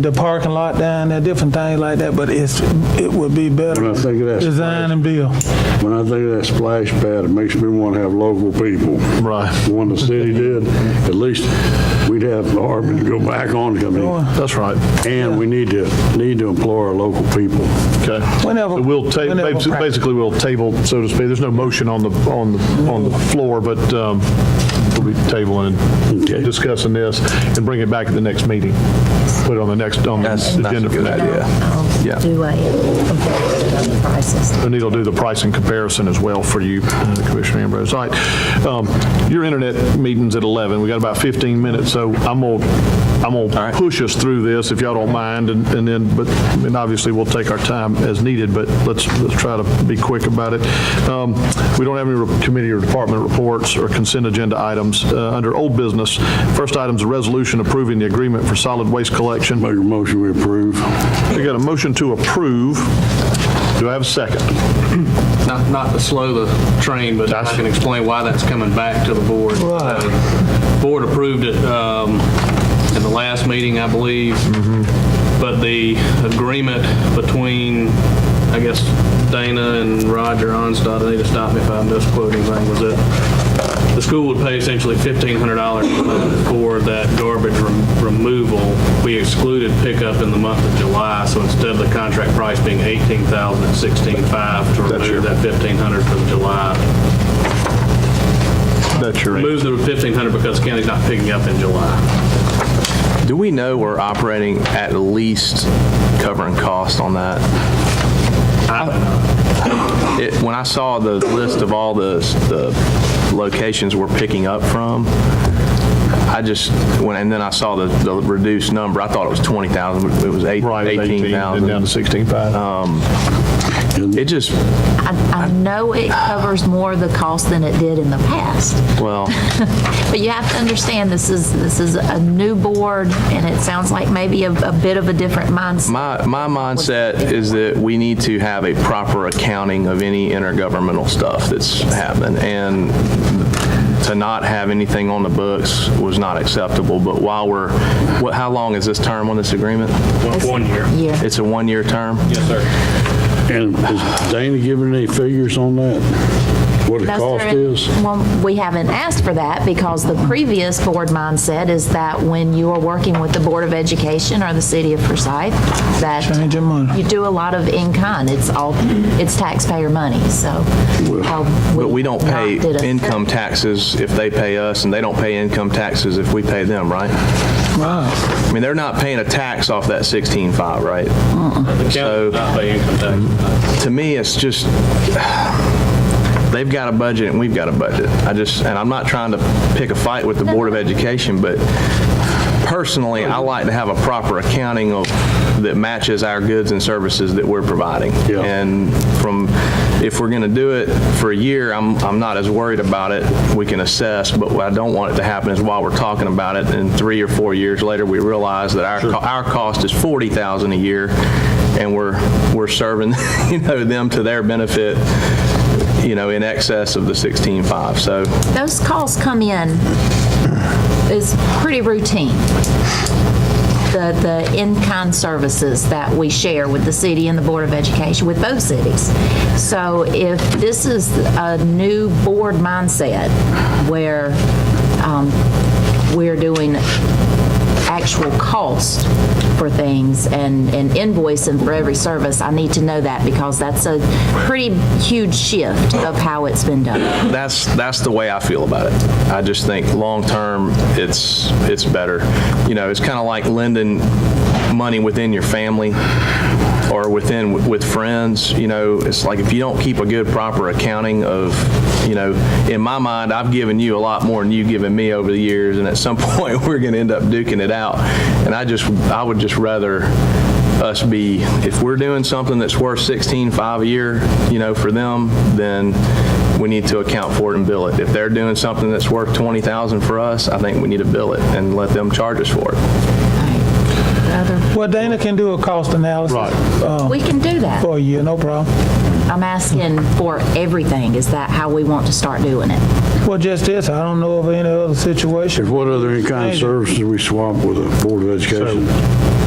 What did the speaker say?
the parking lot down there, different things like that, but it's, it would be better. When I think of that- Design and build. When I think of that splash pad, it makes me want to have local people. Right. The One the city did, at least we'd have the Harbor to go back on to come in. That's right. And we need to, need to employ our local people. Okay. Whenever- So We'll ta, whenever basi- practice. basically, we'll table, so to speak. There's no motion on the, on the, on the floor, but um, we'll be tabling Okay. and discussing this and bring it back at the next meeting. Put it on the next, on the That's- that's a agenda for good that. idea. Yeah. I'll do a comparison of the prices. And it'll do the pricing comparison as well for you, uh, Commissioner Ambrose. All right, um, your internet meeting's at 11, we got about 15 minutes, so I'm gonna, I'm gonna right. push us through this, if y'all don't mind, and and then, but, and obviously, we'll take our time as needed, but let's, let's try to be quick about it. Um, We don't have any re- committee or department reports or consent agenda items. Uh, Under old business, first item's a resolution approving the agreement for solid waste collection. Make a motion, we approve. We got a motion to approve. Do I have a second? Not, not to slow the train, but I can explain why that's coming back to the board. Uh, Board approved it um, in the last meeting, I believe, but the agreement between, I guess, Dana and Roger Onstad, they just stopped me if I'm misquoting anything, was that the school would pay essentially $1,500 a month for that garbage rem- removal. We excluded pickup in the month of July, so instead of the contract price being $18,000, it's $16,500 to remove that $1,500 from July. That's your Move the $1,500 because the county's not picking up in July. Do we know we're operating at least covering cost on that? It, when I saw the list of all the, the locations we're picking up from, I just, when, and then I saw the, the reduced number, I thought it was 20,000, but it was eight- Right, 18,000 down to 18,000. 16,500. It just, I, I know it covers more of the cost than it did in the past, well, but you have to understand, this is, this is a new board, and it sounds like maybe a, a bit of a different mindset. my, my mindset is that we need to have a proper accounting of any intergovernmental stuff that's happening. And to not have anything on the books was not acceptable. But while we're, what, how long is this term on this agreement? One- One year. Yeah. It's a one-year term? Yes, sir. And is Dana giving any figures on that? What the That's cost their- is? Well, we haven't asked for that because the previous board mindset is that when you are working with the Board of Education or the City of Forsyth, that Change your money. you do a lot of in-kind. It's all, it's taxpayer money, so. uh, But we don't pay did a- income taxes if they pay us, and they don't pay income taxes if we pay them, right? Wow. I mean, they're not paying a tax off that 16.5, right? Mm. The So- county's not paying income tax. To me, it's just, they've got a budget and we've got a budget. I just, and I'm not trying to pick a fight with the Board of Education, but personally, I like to have a proper accounting of, that matches our goods and services that we're providing. Yeah. And from, if we're going to do it for a year, I'm, I'm not as worried about it. We can assess, but what I don't want it to happen is while we're talking about it, and three or four years later, we realize that our, co- our cost is 40,000 a year, and we're, we're serving, you know, them to their benefit, you know, in excess of the 16.5. So Those calls come in, is pretty routine. The, the in-kind services that we share with the city and the Board of Education, with both cities. So if this is a new board mindset where um, we're doing actual cost for things and, and invoicing for every service, I need to know that because that's a pretty huge shift of how it's been done. that's, that's the way I feel about it. I just think, long-term, it's, it's better. You know, it's kind of like lending money within your family or within, with friends, you know, it's like if you don't keep a good, proper accounting of, you know, in my mind, I've given you a lot more than you've given me over the years, and at some point, we're going to end up duking it out. And I just, I would just rather us be, if we're doing something that's worth 16.5 a year, you know, for them, then we need to account for it and bill it. If they're doing something that's worth 20,000 for us, I think we need to bill it and let them charge us for it. Well, Dana can do a cost analysis. Right. uh, We can do that. For you, no problem. I'm asking for everything. Is that how we want to start doing it? Well, just this, I don't know of any other situation. If what other kind of services we swap with the Board of Education?